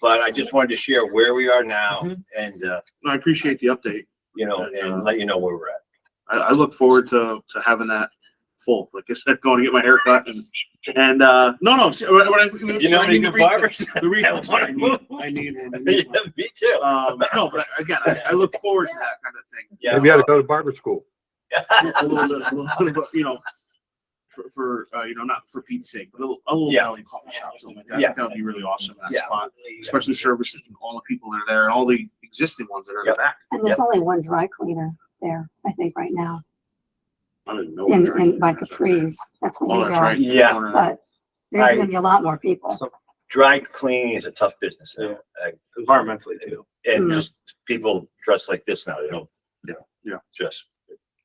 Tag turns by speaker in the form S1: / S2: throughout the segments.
S1: But I just wanted to share where we are now
S2: Mhm.
S1: and, uh,
S2: I appreciate the update.
S1: you know, and let you know where we're at.
S2: I, I look forward to, to having that full. Like I said, going to get my hair cut and, and, uh, no, no. see, when I- when I-
S1: You know,
S2: I need
S1: any
S2: the
S1: good
S2: re-
S1: barbers?
S2: The
S1: I
S2: reflex,
S1: wanna
S2: I need,
S1: move.
S2: I need one. I
S1: Yeah,
S2: need one.
S1: me too.
S2: Um, no, but again, I, I look forward to that kind of thing.
S1: Yeah.
S3: Maybe I ought to go to barber school.
S2: a little bit, a little bit, but, you know, for, for, uh, you know, not for Pete's sake, but a little, a little
S1: Yeah.
S2: Italian coffee shop, something like that.
S1: Yeah.
S2: That would be really awesome, in that
S1: Yeah.
S2: spot, especially services, and all the people that are there and all the existing ones that are in the
S1: Yep.
S2: back.
S4: And there's only one dry cleaner there, I think, right now,
S2: I didn't know.
S4: in,
S2: what drink
S4: in by
S2: it is up there.
S4: Capri's. That's when
S2: Oh,
S4: you
S2: that's right.
S4: go.
S1: Yeah.
S2: Corner.
S4: But
S1: I-
S4: there's gonna be a lot more people.
S1: Dry cleaning is a tough business. uh,
S5: environmentally too.
S1: And
S4: Mm.
S1: just people dress like this now, they don't, you know.
S2: Yeah.
S1: Just,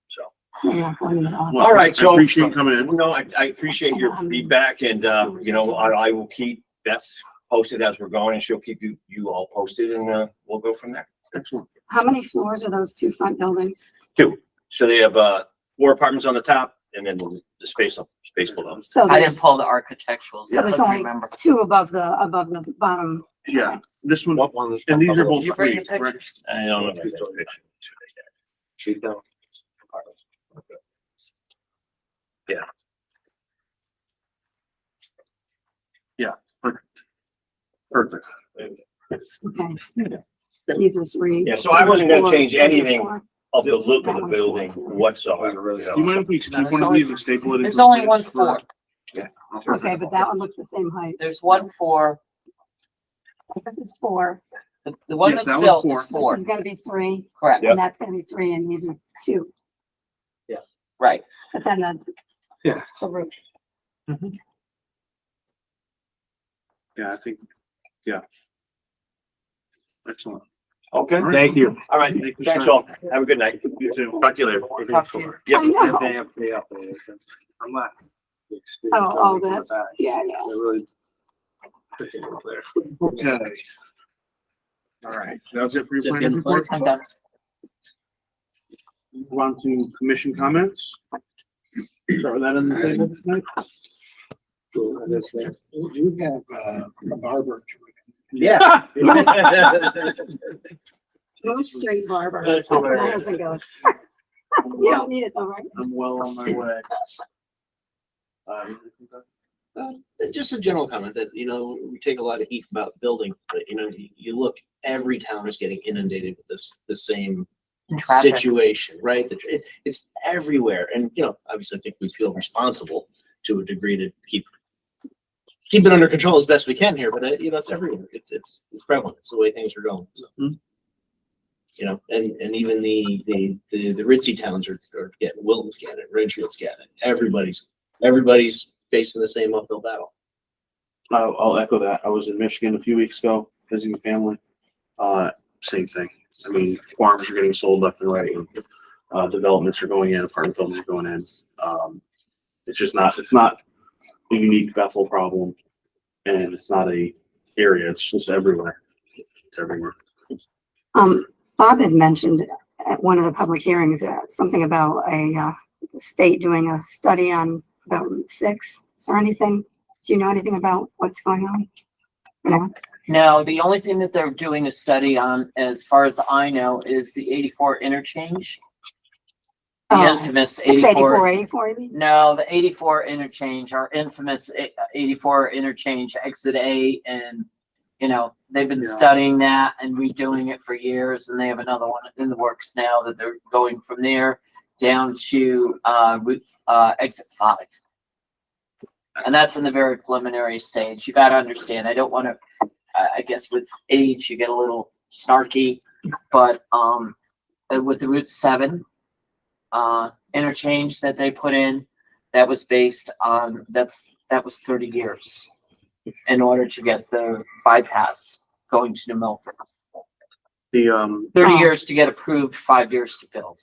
S1: so.
S4: They're not going to all-
S2: Well,
S1: All right,
S2: I
S1: so-
S2: Appreciate you coming in.
S1: No, I, I appreciate your feedback and, uh, you know, I, I will keep Beth posted as we're going and she'll keep you, you all posted and, uh, we'll go from there.
S2: Excellent.
S4: How many floors are those two front buildings?
S1: So they have, uh, four apartments on the top and then the the space, up- space below.
S4: So
S6: I
S4: there's,
S6: didn't pull the architectural,
S4: so
S6: so I
S4: there's
S6: don't
S4: only
S6: remember.
S4: two above the, above the bottom.
S2: Yeah, this one,
S3: What one is-
S2: and these are both
S6: You bring
S2: free,
S6: the picture?
S2: correct?
S1: I don't know. if I got a picture.
S5: She's down.
S2: Perfect.
S4: Okay. These are three.
S1: Yeah, so I wasn't gonna
S4: Four,
S1: change
S4: three,
S1: anything
S4: four.
S1: of the look of the building whatsoever. you
S2: You
S1: know.
S2: mind if we keep
S6: there's
S2: one of
S6: only-
S2: these and staple it? into
S6: There's
S2: the
S6: only
S2: plans
S6: one
S2: for-
S6: floor.
S4: Okay, but that one looks the same height.
S6: There's one floor.
S4: So This is four.
S6: The, the one
S2: Yes,
S6: that's
S2: that one's
S6: built
S2: four.
S6: is
S2: This
S4: This
S6: four,
S4: is gonna be three,
S6: correct,
S1: Yep.
S4: and that's gonna be three, and these are two,
S6: right.
S4: but then the.
S3: Yeah.
S4: The roof.
S2: Yeah, I think, yeah. Excellent.
S3: Okay, thank you.
S1: All right,
S2: Thank you,
S1: thanks
S2: sir.
S1: all. Have a good night.
S2: You too.
S1: Talk to you later.
S6: Talk to you.
S1: Yep.
S4: I know.
S5: They have, they have, they have, since I'm not. the experience
S4: Oh, all
S5: buildings in the
S4: that's,
S5: back,
S4: yeah, yeah.
S5: they're really picking up there.
S2: Okay. All right, that's it for your planning report.
S6: I'm done.
S2: Move on to commission comments. Start with that on the table tonight.
S5: Cool, and that's there.
S7: You have uh, a barber.
S1: Yeah.
S4: Go straight barber.
S5: That's hilarious.
S4: Miles and goes. You don't need it though, right?
S2: I'm well on my way.
S5: Um, uh, Just a general comment that, you know, we take a lot of heat about building, but you know, you- you look, every town is getting inundated with this, the same
S6: And traffic.
S5: situation, right? The tr- It, it's everywhere. And, you know, obviously I think we feel responsible to a degree to keep, keep it under control as best we can here, but uh, you know, it's everywhere. It's, it's, it's prevalent. It's the way things are going. So,
S2: Mhm.
S5: you know, and, and even the, the, the, the ritzy towns are, are getting, Wilton's getting it, Ridgefield's getting it. Everybody's, everybody's facing the same uphill battle.
S2: I'll, I'll echo that. I was in Michigan a few weeks ago visiting family. Uh, same thing. I mean, farms are getting sold left and right. and, Uh, developments are going in, apartment buildings are going in. Um, it's just not, it's not a unique Bethel problem. And it's not a area, it's just everywhere. It's everywhere.
S4: Um, Bob had mentioned at one of the public hearings, uh, something about a, uh, the state doing a study on about Route six. Is there anything, do you know anything about what's going on? No?
S6: No, the only thing that they're doing a study on, as far as I know, is the eighty-four interchange. The
S4: Oh,
S6: infamous
S4: Six eighty-four,
S6: eighty-four.
S4: eighty-four, you mean?
S6: No, the eighty-four interchange, our infamous eight- eighty-four interchange exit A and, you know, they've been
S2: Yeah.
S6: studying that and redoing it for years and they have another one in the works now that they're going from there down to, uh, Route, uh, exit five. And that's in the very preliminary stage. You gotta understand, I don't wanna, I, I guess with age, you get a little snarky, but, um, uh, with the Route seven, uh, interchange that they put in, that was based on, that's, that was thirty years in order to get the bypass going to New Milford.
S2: The, um,
S6: Thirty
S4: Wow.
S6: years to get approved, five years to build.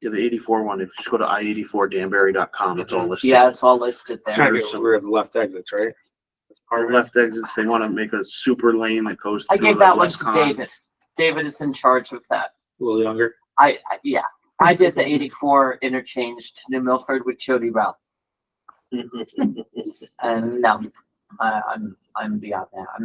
S2: yeah, the eighty-four one, if you just go to I eighty-four danbury.com, it's all listed.
S6: Mm-hmm. Yeah, it's all listed there.
S2: Right.
S5: Kind of We're at the left exits, right? That's part
S2: Our
S5: of it.
S2: left exits, they want to make a super lane that goes.
S6: I
S2: through,
S6: gave
S2: like,
S6: that one to
S2: Westcon.
S6: David. David is in charge of that.
S5: A little younger.
S6: I, I, yeah, I did the eighty-four interchange to New Milford with Jody Ralph. And no, I, uh, I'm, I'm beyond that. I'm